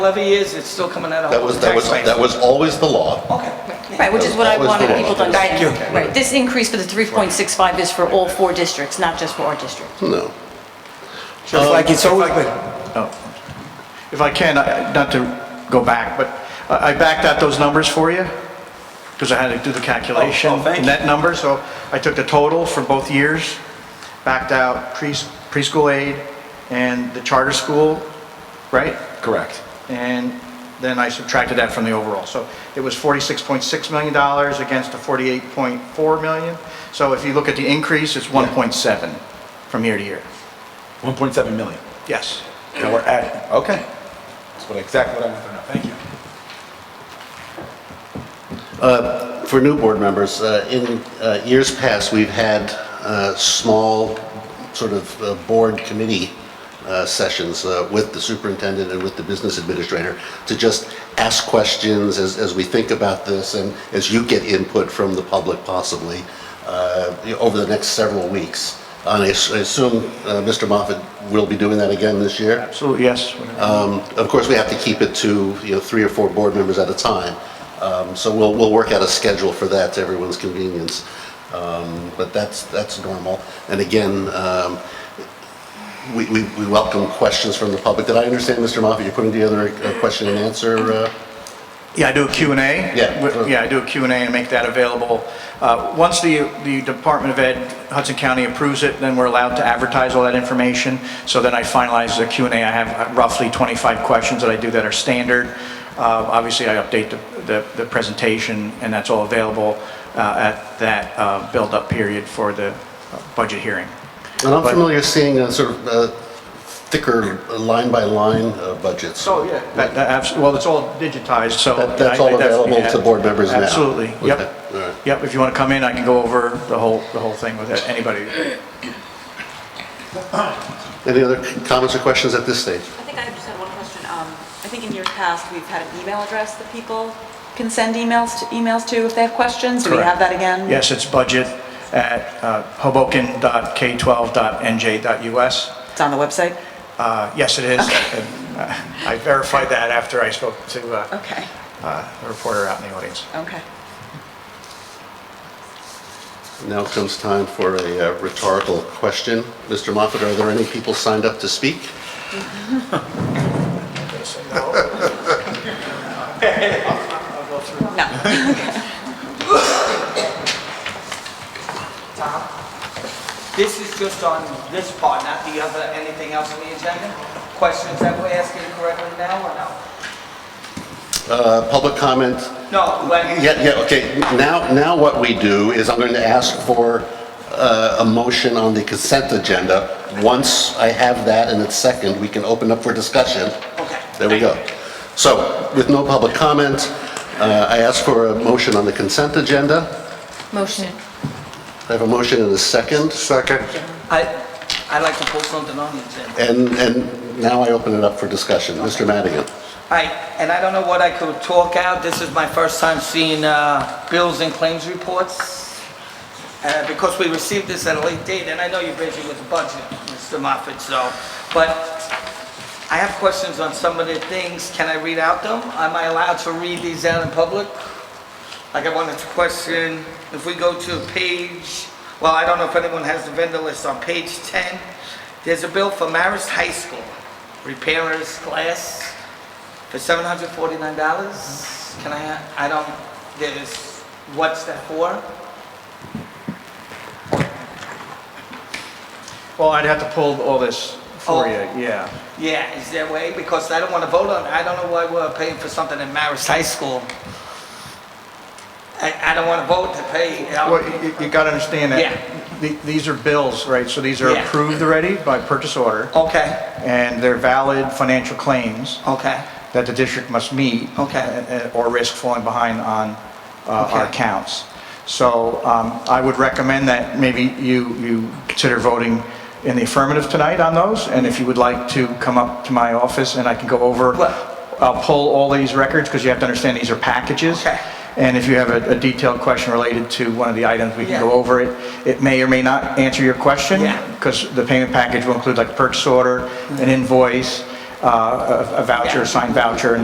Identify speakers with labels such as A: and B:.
A: levy is, it's still coming out of
B: That was,
A: the
B: that was,
A: tax
B: that
A: base.
B: was always the law.
A: Okay.
C: Right, which is what I
B: That was
C: wanted
B: the
C: people to
B: law.
C: understand.
A: Thank you.
C: Right, this increase for the 3.65 is for all four districts, not just for our district.
B: No.
D: Just like it's always been.
E: If I can, I- not to go back, but I I backed out those numbers for you, because I had to do the calculation.
A: Oh, oh, thank you.
E: Net number, so I took the total for both years, backed out pre- preschool aid and the charter school, right?
F: Correct.
E: And then I subtracted that from the overall. So it was $46.6 million against the $48.4 million. So if you look at the increase, it's 1.7 from year to year.
F: 1.7 million.
E: Yes.
F: Now we're at, okay. That's what, exactly what I wanted to know. Thank you.
B: For new board members, uh, in uh, years past, we've had uh, small sort of uh, board committee uh, sessions uh, with the superintendent and with the business administrator to just ask questions as, as we think about this and as you get input from the public possibly uh, you know, over the next several weeks. And I s- I assume uh, Mr. Moffett will be doing that again this year?
E: Absolutely, yes. whatever.
A: Uh,
B: Of course, we have to keep it to, you know, three or four board members at a time. Um, So we'll, we'll work out a schedule for that to everyone's convenience. Um, But that's, that's normal. And again, um, we, we we welcome questions from the public. Did I understand, Mr. Moffett, you're putting together a a question and answer? uh,
E: Yeah, I do a Q and A.
B: Yeah.
E: W- Yeah, I do a Q and A and make that available. Uh, Once the, the Department of Ed Hudson County approves it, then we're allowed to advertise all that information. So then I finalize the Q and A. I have uh, roughly 25 questions that I do that are standard. Uh, Obviously, I update the, the, the presentation and that's all available uh, at that uh, build-up period for the uh, budget hearing.
B: And I'm
E: But-
B: familiar seeing uh, sort of uh, thicker line-by-line uh, budgets.
E: So, yeah, that, that, abs- well, it's all digitized, so.
B: That- that's
E: I- I
B: all available
E: definitely-
B: to board members now?
E: Absolutely,
B: Okay,
E: yep.
B: all right.
E: Yep, if you want to come in, I can go over the whole, the whole thing with anybody.
B: Any other comments or questions at this stage?
G: I think I just had one question. Um, I think in years past, we've had an email address that people can send emails to, emails to if they have questions. Do we have that again?
E: Yes, it's budget at uh, hoboken.k12.nj.us.
G: It's on the website?
E: Uh, Yes, it is. And, uh, I verified that after I spoke to uh,
G: Okay,
E: uh, a reporter out in the audience.
G: okay.
B: Now comes time for a uh, rhetorical question. Mr. Moffat, are there any people signed up to speak?
G: No.
A: This is just on this part, not the other, anything else on the agenda? Questions that we're asking correctly now or no?
B: Uh, Public comment?
A: No, when,
B: Yeah, yeah, okay. Now, now what we do is I'm going to ask for uh, a motion on the consent agenda. Once I have that and it's second, we can open up for discussion.
A: okay.
B: There we go. So with no public comment, uh, I ask for a motion on the consent agenda.
C: Motion.
B: I have a motion and a second. Second.
A: I, I'd like to pull something on the agenda.
B: And, and now I open it up for discussion. Mr. Madigan.
A: I, and I don't know what I could talk out, this is my first time seeing uh, bills and claims reports, uh, because we received this at a late date, and I know you're busy with the budget, Mr. Moffett, so, but I have questions on some of the things, can I read out them? Am I allowed to read these out in public? Like, I wanted to question, if we go to page, well, I don't know if anyone has the vendor list, on page 10, there's a bill for Marist High School, repairers, glass, for seven hundred forty-nine dollars? Can I, I don't, there's, what's that for?
E: Well, I'd have to pull all this for you,
A: Oh.
E: yeah.
A: Yeah, is there a way? Because I don't wanna vote on, I don't know why we're paying for something in Marist High School. I, I don't wanna vote to pay. you know?
E: Well, you, you gotta understand
A: Yeah.
E: that th- these are bills, right? So these are
A: Yeah. Oh.
E: approved already by purchase order,
A: Okay,
E: and they're valid financial claims
A: okay,
E: that the district must meet.
A: Okay.
E: uh, uh, Or risk falling behind on uh, our
A: Okay.
E: accounts. So um, I would recommend that maybe you, you consider voting in the affirmative tonight on those, and if you would like to come up to my office and I can go over,
A: What?
E: I'll pull all these records, because you have to understand these are packages.
A: Okay.
E: And if you have a a detailed question related to one of the items, we can go
A: Yeah.
E: over it. It may or may not answer your question.
A: Yeah.
E: Because the payment package will include like a purchase order, an invoice, uh, a a voucher, a signed voucher, and